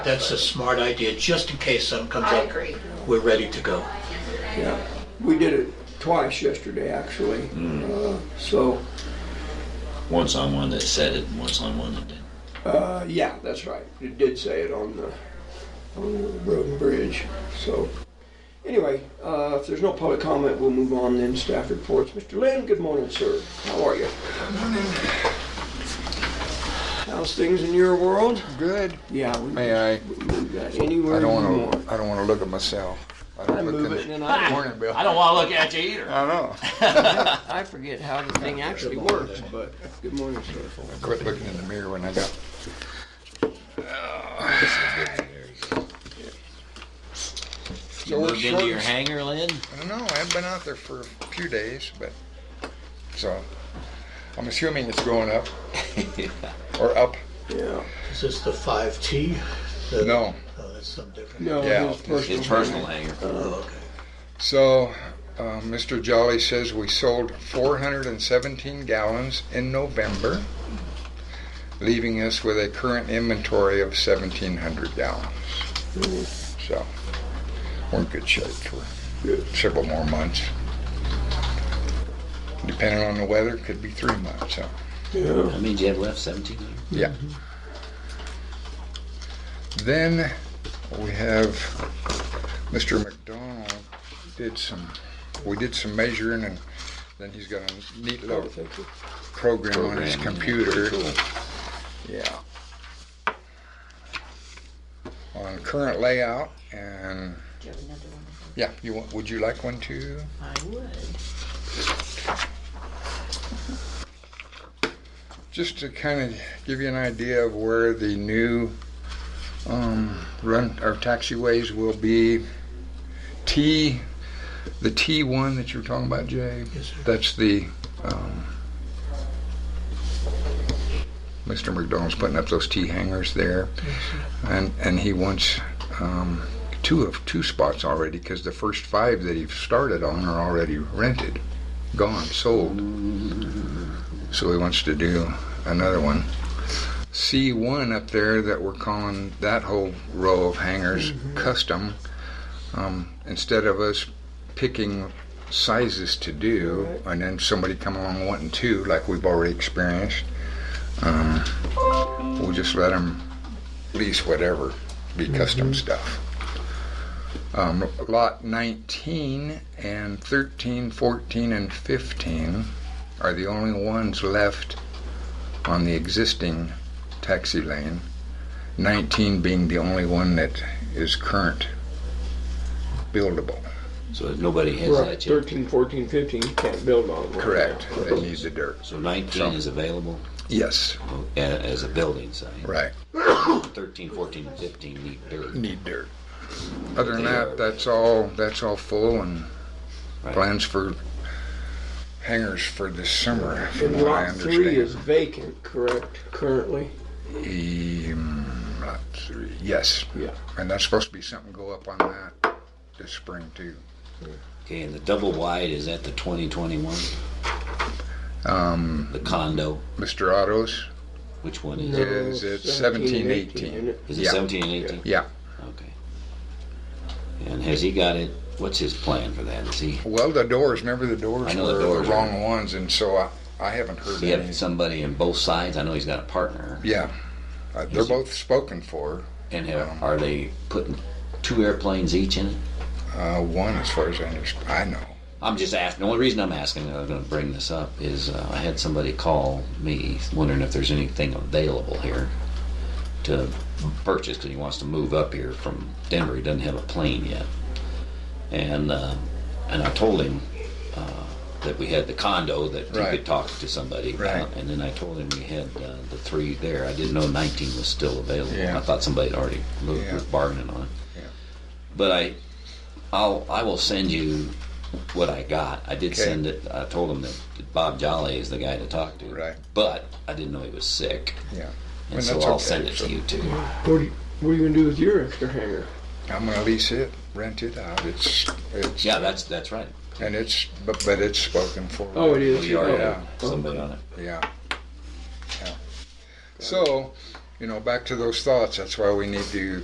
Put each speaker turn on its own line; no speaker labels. That's a smart idea, just in case something comes
I
up.
agree.
We're ready to go.
Yeah, we did it twice yesterday, actually.
Mm.
Uh, So,
Once on one that said it, and once on one that didn't.
uh, yeah, that's right. It did say it on the, on the road and bridge, so. Anyway, uh, if there's no public comment, we'll move on then, staff reports. Mr. Lynn, good morning, sir. How are you? How's things in your world?
Good.
Yeah, we
May I?
move that anywhere
I
you
don't want
want.
to. I don't want to look at myself. I
I
don't look
move
in
it
the-
and then I,
Morning, Bill.
I don't want to look at you either.
I know.
I forget how the thing actually works, but good morning, sir.
I quit looking in the mirror when I got.
You moved into your hangar, Lynn?
I don't know. I haven't been out there for a few days, but so I'm assuming it's going up or up.
Yeah.
Is this the 5T? The-
No.
Oh, that's something different.
No,
Yeah.
his personal.
It's personal hangar.
Oh, okay.
So. Uh, Mr. Jolly says we sold 417 gallons in November, leaving us with a current inventory of 1,700 gallons. So we're in good shape for several more months. Depending on the weather, could be three months. So
Yeah.
That means you have left 17 years.
yeah. Then we have Mr. McDonald did some. We did some measuring, and then he's got a neat little program, on his
Program, yeah.
computer. Yeah. On current layout and.
Do you have another one?
Yeah, you want, would you like one too?
I would.
Just to kind of give you an idea of where the new um, run or taxiways will be. T, the T one that you were talking about, Jay.
Yes, sir.
That's the um, Mr. McDonald's putting up those T hangers there, and and he wants. Um, Two of two spots already because the first five that he started on are already rented, gone, sold. So he wants to do another one. C1 up there that we're calling that whole row of hangers custom. Um, instead of us picking sizes to do and then somebody come along wanting two, like we've already experienced, um, we'll just let them lease whatever, be custom stuff. Um, lot 19 and 13, 14, and 15 are the only ones left on the existing taxi lane, 19 being the only one that is current buildable.
So nobody has
We're up
that yet.
13, 14, 15, you can't build on it.
Correct. They need the dirt.
So 19
So-
is available
Yes.
oh, a- as a building site.
Right.
13, 14, and 15 need dirt.
Need dirt. Other than that, that's all. That's all full and
Right.
plans for hangers for this summer. From
And
what I
lot three is
understand.
vacant, correct, currently?
Um, lot three. Yes.
Yeah.
And that's supposed to be something go up on that this spring too.
Okay, and the double wide is at the 2021,
Um,
the condo.
Mr. Otto's.
Which one is
No,
it?
Is it
17,
18,
isn't it?
Is it
Yeah.
17 and 18?
Yeah.
Okay. And has he got it? What's his plan for that? Is he,
Well, the doors. Remember the doors
I know
were
the
the,
doors are-
wrong ones, and so I, I haven't heard
does he
any.
have somebody in both sides? I know he's got a partner.
Yeah. Uh, they're both spoken for.
And have, are they putting two airplanes each in it?
Uh, one, as far as I understand, I know.
I'm just asking. The only reason I'm asking, and I'm going to bring this up, is uh, I had somebody call me wondering if there's anything available here to purchase because he wants to move up here from Denver. He doesn't have a plane yet, and uh, and I told him uh, that we had the condo that
Right.
he could talk to somebody about,
Right.
and then I told him we had uh, the three there. I didn't know 19 was still available.
Yeah.
I thought somebody had already moved,
Yeah.
was bargaining on it.
Yeah.
But I, I'll I will send you what I got. I did
Okay.
send it. I told him that Bob Jolly is the guy to talk to.
Right.
But I didn't know he was sick,
Yeah.
and
Well,
so
that's
I'll
okay,
send it
so-
to you too.
What are you, what are you gonna do with your extra hangar?
I'm gonna lease it, rent it out. It's, it's,
Yeah, that's that's right.
and it's, but, but it's spoken for.
Oh, it is.
We already
Oh,
have somebody on it.
Yeah. Yeah. So, you know, back to those thoughts. That's why we need to